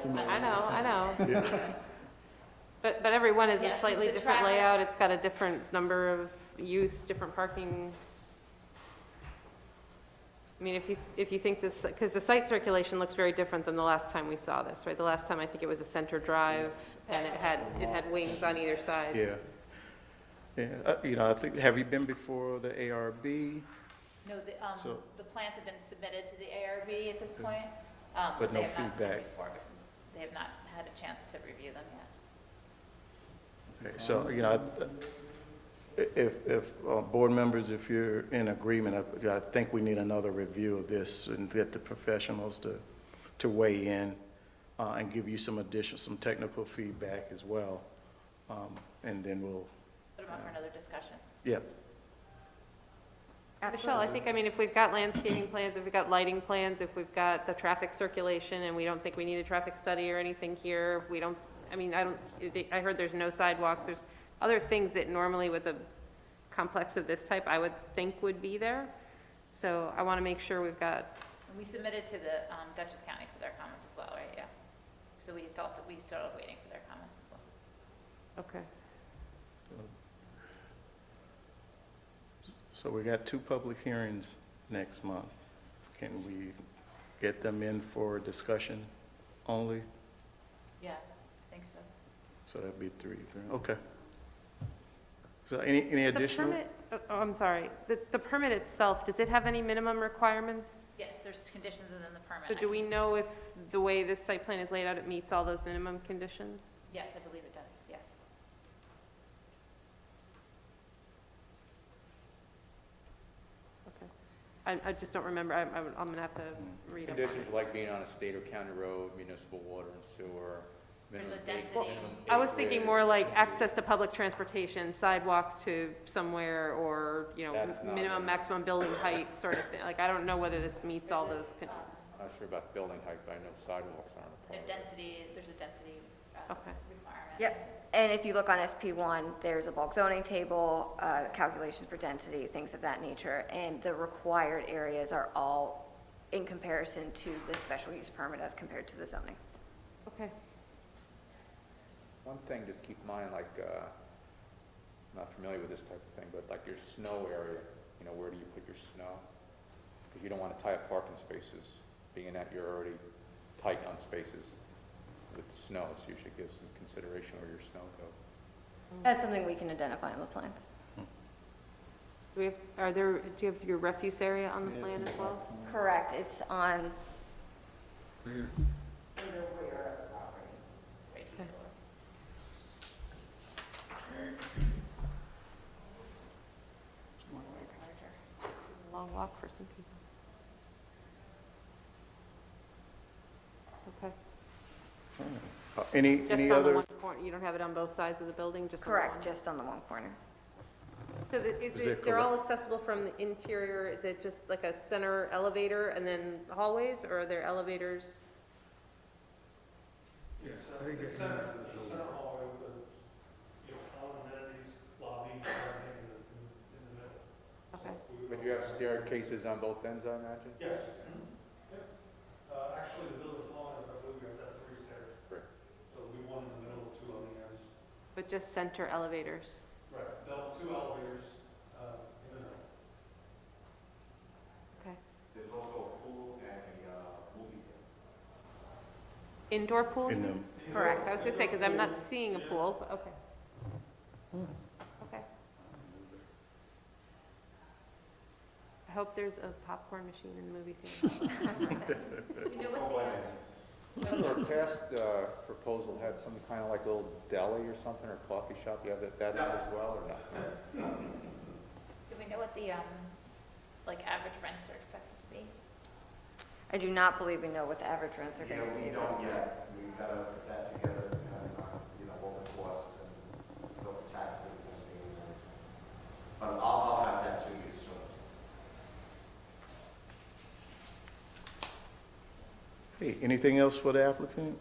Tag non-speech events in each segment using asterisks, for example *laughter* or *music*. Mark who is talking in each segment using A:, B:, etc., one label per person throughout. A: from.
B: I know, I
C: *laughs*
B: know.
D: Yeah.
B: But, but every one is
C: Yes,
B: a slightly
C: the
B: different
C: traffic-
B: layout, it's got a different number of use, different parking. I mean, if you, if you think this, because the site circulation looks very different than the last time we saw this, right? The last time, I think it was a center drive, and it had, it had wings on either side.
D: Yeah. Yeah, uh, you know, I think, have you been before the ARB?
C: No, the, um,
D: So-
C: the plans have been submitted to the ARB at this point. um,
D: But
C: they
D: no
C: have not been
D: feedback.
C: before, but They have not had a chance to review them yet.
D: Okay, So, you know, I- if, if, uh, board members, if you're in agreement, I- I think we need another review of this and get the professionals to, to weigh in uh, and give you some additional, some technical feedback as well. Um, And then we'll,
C: Put them up for another discussion.
D: yeah,
B: Michelle, I think, I mean, if we've got landscaping plans, if we've got lighting plans, if we've got the traffic circulation, and we don't think we need a traffic study or anything here, we don't, I mean, I don't, I heard there's no sidewalks, there's other things that normally with a complex of this type, I would think would be there. So I want to make sure we've got,
C: And we submitted to the um, Dutchess County for their comments as well, right? Yeah. So we still, have to- we still are waiting for their comments as well.
B: okay.
D: so we got two public hearings next month. Can we get them in for discussion only?
C: Yeah, I think so.
D: So that'd be three, three, okay. So any, any additional?
B: The permit, oh, oh, I'm sorry, the, the permit itself, does it have any minimum requirements?
C: Yes, there's conditions within the permit.
B: So
C: I
B: do we
C: can-
B: know if the way this site plan is laid out, it meets all those minimum conditions?
C: Yes, I believe it does, yes.
B: I, I just don't remember, I'm, I'm I'm gonna have to read up on
E: Mm. Conditions
B: it.
E: like being on a state or county road, municipal water and sewer.
C: There's a
E: minimum
C: density.
E: acre-
C: Well,
E: minimum
B: I was thinking more
E: acreage.
B: like access to public transportation, sidewalks to somewhere, or, you know,
E: That's not
B: minimum,
E: it.
B: maximum building height sort of thing. Like, I don't know whether this meets all those, con-
E: I'm Not sure about building height, but I know sidewalks aren't a
C: There's
E: problem.
C: density, there's a density uh,
B: Okay.
C: requirement.
F: Yep, and if you look on SP one, there's a bulk zoning table, uh, calculations for density, things of that nature, and the required areas are all in comparison to the special use permit as compared to the zoning.
B: okay.
E: One thing, just keep in mind, like, uh, I'm not familiar with this type of thing, but like your snow area, you know, where do you put your snow? Because you don't want to tie up parking spaces, being that you're already tight on spaces with snow, so you should give some consideration where your snow goes.
F: That's something we can identify in the plans.
B: Do we have, are there, do you have your refuse area on the plan as well?
F: Correct, it's on,
B: Long walk for some people. Okay,
D: Uh, Any, any
B: just on the
D: other,
B: one corner, you don't have it on both sides of the building, just on the one?
F: correct, just on the one corner.
B: So the- is
D: Is it
B: it, they're all accessible from the interior, is it just like a center elevator and then hallways, or are there elevators?
G: Yes, I think it's. Center, the center hallway with, the, you know, all the amenities, lobby, and everything in the, in the middle.
B: Okay,
E: But you have staircases on both ends, I imagine?
G: Yes. Yep. Uh, actually, the building's long enough, I believe we have that three stairs.
E: Correct.
G: So we one in the middle, two on the ends.
B: but just center elevators?
G: Right, they'll, two elevators, uh, in the middle.
B: Indoor pool?
D: in them?
F: Correct.
B: I was gonna say, because I'm not seeing a pool, but okay.
A: Hmm.
B: Okay. I hope there's a popcorn machine in the movie theater.
C: You know what they are?
E: Our past uh, proposal had some kind of like little deli or something, or coffee shop, you have that, that in as well, or not?
C: Do we know what the, um, like, average rents are expected to be?
F: I do not believe we know what the average rents are
H: You
F: going
H: know,
F: to be
H: we
F: this
H: don't
F: year.
H: yet, we gotta put that together, and, uh, you know, what the costs and what the taxes and everything. But I'll, I'll have that to you soon.
D: Hey, anything else for the applicant?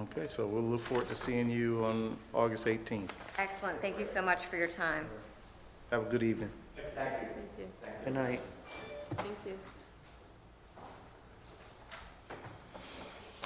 D: Okay, so we'll look forward to seeing you on August 18th.
F: Excellent, thank you so much for your time.
D: Have a good evening.
B: Thank you.
A: Good night.
B: Thank you.